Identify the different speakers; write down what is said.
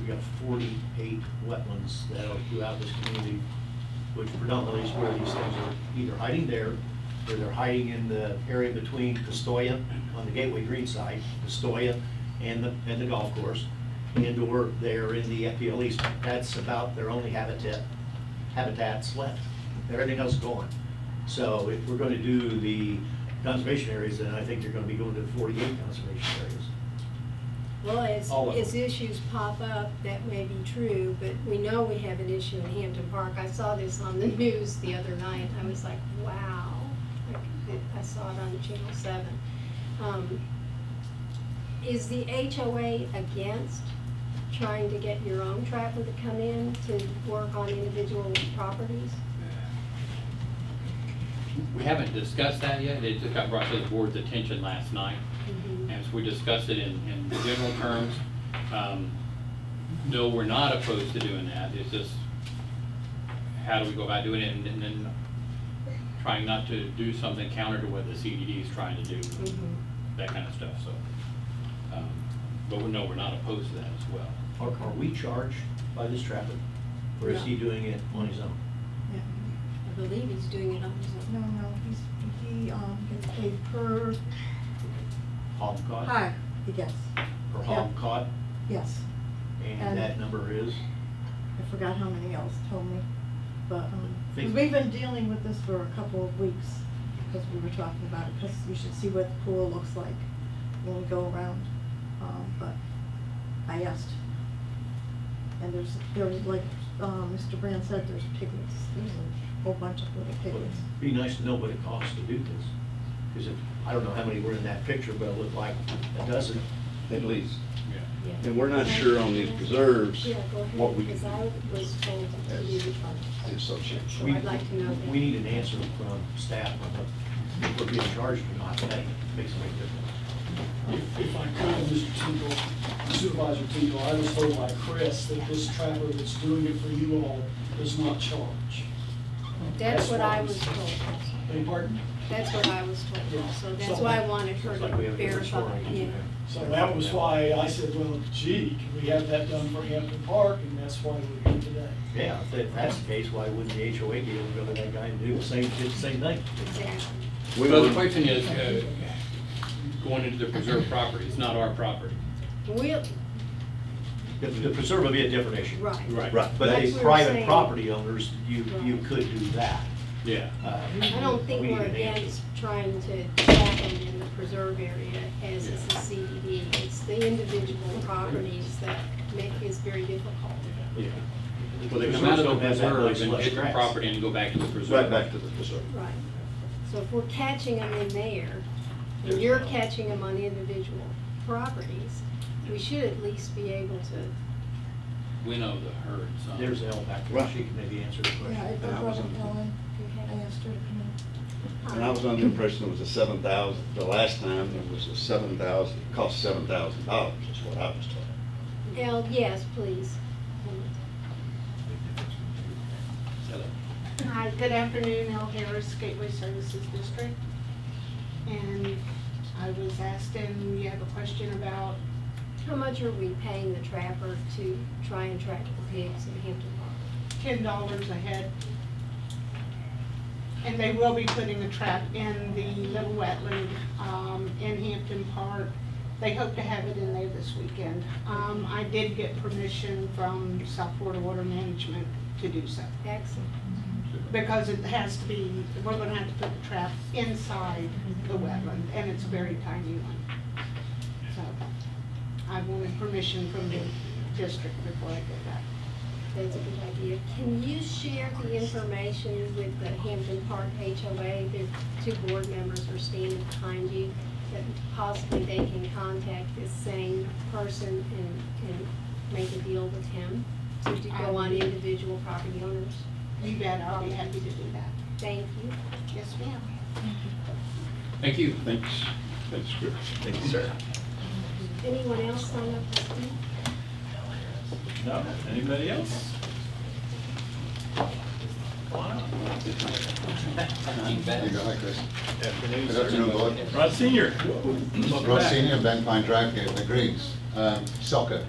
Speaker 1: we got forty-eight wetlands that are throughout this community, which predominantly is where these things are either hiding there, or they're hiding in the area between Castoya on the Gateway Green side, Castoya and the, and the golf course, and/or they're in the FPL East. That's about their only habitat, habitats left. Everything else is gone. So if we're going to do the conservation areas, then I think they're going to be going to forty-eight conservation areas.
Speaker 2: Well, as,
Speaker 1: All of
Speaker 2: as
Speaker 1: them.
Speaker 2: issues pop up, that may be true, but we know we have an issue in Hampton Park. I saw this on the news the other night. I was like, wow. Like, it- I saw it on Channel Seven. Um, Is the HOA against trying to get your own trapper to come in to work on individual properties?
Speaker 3: We haven't discussed that yet, it just got brought to the board's attention last night.
Speaker 2: Mhm.
Speaker 3: As we discussed it in, in general terms, um, no, we're not opposed to doing that, it's just, how do we go about doing it, and then- then trying not to do something counter to what the CDD is trying to do,
Speaker 2: Mhm.
Speaker 3: that kind of stuff, so. um, But we- no, we're not opposed to that as well.
Speaker 1: Are, are we charged by this traffic, or is he
Speaker 2: No.
Speaker 1: doing it on his own?
Speaker 4: Yeah.
Speaker 2: I believe he's doing it on his own.
Speaker 4: No, no, he's, he, um, gets paid per
Speaker 1: Hog caught,
Speaker 4: hog, he gets,
Speaker 1: or hog
Speaker 4: yeah.
Speaker 1: caught,
Speaker 4: yes.
Speaker 1: and
Speaker 4: And-
Speaker 1: that number is?
Speaker 4: I forgot how many else told me, but, um, 'cause
Speaker 1: Think-
Speaker 4: we've been dealing with this for a couple of weeks, because we were talking about it, because you should see what the pool looks like when we go around, um, but I asked. And there's, there was like, um, Mr. Brand said, there's piglets, there's a whole bunch of little
Speaker 1: Well,
Speaker 4: piglets.
Speaker 1: it'd Be nice to know what it costs to do this, because if, I don't know how many were in that picture, but it looked like a dozen.
Speaker 5: at least.
Speaker 3: Yeah.
Speaker 2: Yeah.
Speaker 5: And we're not sure on these preserves,
Speaker 2: Yeah, go ahead,
Speaker 5: what we
Speaker 2: because I
Speaker 5: can
Speaker 2: was told to
Speaker 5: as
Speaker 2: leave it on.
Speaker 5: the association.
Speaker 2: So
Speaker 1: We
Speaker 2: I'd like to know that.
Speaker 1: We need an answer from staff on what- if we're being charged or not, that makes a big difference.
Speaker 6: If if I could, Mr. Tingle, Supervisor Tingle, I was told by Chris that this trapper that's doing it for you all does not charge.
Speaker 2: That's what I
Speaker 6: That's
Speaker 2: was
Speaker 6: what
Speaker 2: told.
Speaker 6: Beg your pardon?
Speaker 2: That's what I was told,
Speaker 6: Yeah.
Speaker 2: so that's
Speaker 6: So-
Speaker 2: why I wanted her
Speaker 1: It's like we
Speaker 2: to
Speaker 1: have a different
Speaker 2: verify,
Speaker 1: story.
Speaker 2: yeah.
Speaker 6: So that was why I said, well, gee, can we have that done for Hampton Park? And that's why we're here today.
Speaker 1: Yeah, if that- that's the case, why wouldn't the HOA be able to go to that guy and do the same, did the same thing?
Speaker 2: Exactly.
Speaker 5: We
Speaker 3: So the
Speaker 5: were-
Speaker 3: question is, uh, going into the preserve property, it's not our property.
Speaker 2: We'll,
Speaker 1: The- The preserve would be a different issue.
Speaker 2: right.
Speaker 5: Right,
Speaker 1: But
Speaker 2: That's
Speaker 1: as
Speaker 2: what we're
Speaker 1: private
Speaker 2: saying.
Speaker 1: property owners, you, you could do that.
Speaker 3: Yeah.
Speaker 1: Uh,
Speaker 2: I don't think
Speaker 1: we need
Speaker 2: we're
Speaker 1: an answer.
Speaker 2: against trying to trap them in the preserve area as is the CDD. It's the individual properties that make, is very difficult.
Speaker 1: Yeah.
Speaker 3: Well, they
Speaker 1: Preserves
Speaker 3: come out of the
Speaker 1: don't have that
Speaker 3: preserve
Speaker 1: nice
Speaker 3: and
Speaker 1: lush
Speaker 3: hit the
Speaker 1: grass.
Speaker 3: property and go back to the preserve.
Speaker 5: Right back to the preserve.
Speaker 2: Right. So if we're catching them in there, and you're catching them on individual properties, we should at least be able to,
Speaker 3: Winnow the herd, so.
Speaker 1: There's L back there, she can maybe answer the
Speaker 4: Yeah, I I
Speaker 1: question.
Speaker 5: And I
Speaker 4: brought
Speaker 5: was on-
Speaker 4: up Ellen, I
Speaker 2: okay?
Speaker 4: asked her to come in.
Speaker 5: And I was under the impression it was a seven thousand, the last time it was a seven thousand, it cost seven thousand dollars, is what I was told.
Speaker 2: Al, yes, please.
Speaker 7: Hi, good afternoon, El Harris, Gateway Services District. And I was asked, and you have a question about,
Speaker 2: How much are we paying the trapper to try and track the pigs in Hampton Park?
Speaker 7: ten dollars a head. And they will be putting a trap in the little wetland, um, in Hampton Park. They hope to have it in there this weekend. Um, I did get permission from South Florida Water Management to do so.
Speaker 2: Excellent.
Speaker 7: Because it has to be, we're gonna have to put the trap inside the wetland, and it's a very tiny one. So I wanted permission from the district before I did that.
Speaker 2: That's a good idea. Can you share the information with the Hampton Park HOA? Their two board members are standing behind you, that possibly they can contact this same person and, and make a deal with him to do- go on individual property owners.
Speaker 7: You bet, I'll be happy to do that.
Speaker 2: Thank you.
Speaker 7: Yes, ma'am.
Speaker 3: Thank you.
Speaker 5: Thanks, thanks, Chris. Thank you, sir.
Speaker 2: Anyone else sign up to speak?
Speaker 8: No, anybody else?
Speaker 5: There you go, hi, Chris.
Speaker 1: Afternoon,
Speaker 9: Good
Speaker 1: sir.
Speaker 9: afternoon, Board.
Speaker 8: Rod Senior.
Speaker 9: Ross Senior, Ben Pine Drive, the Greens, um, Selka.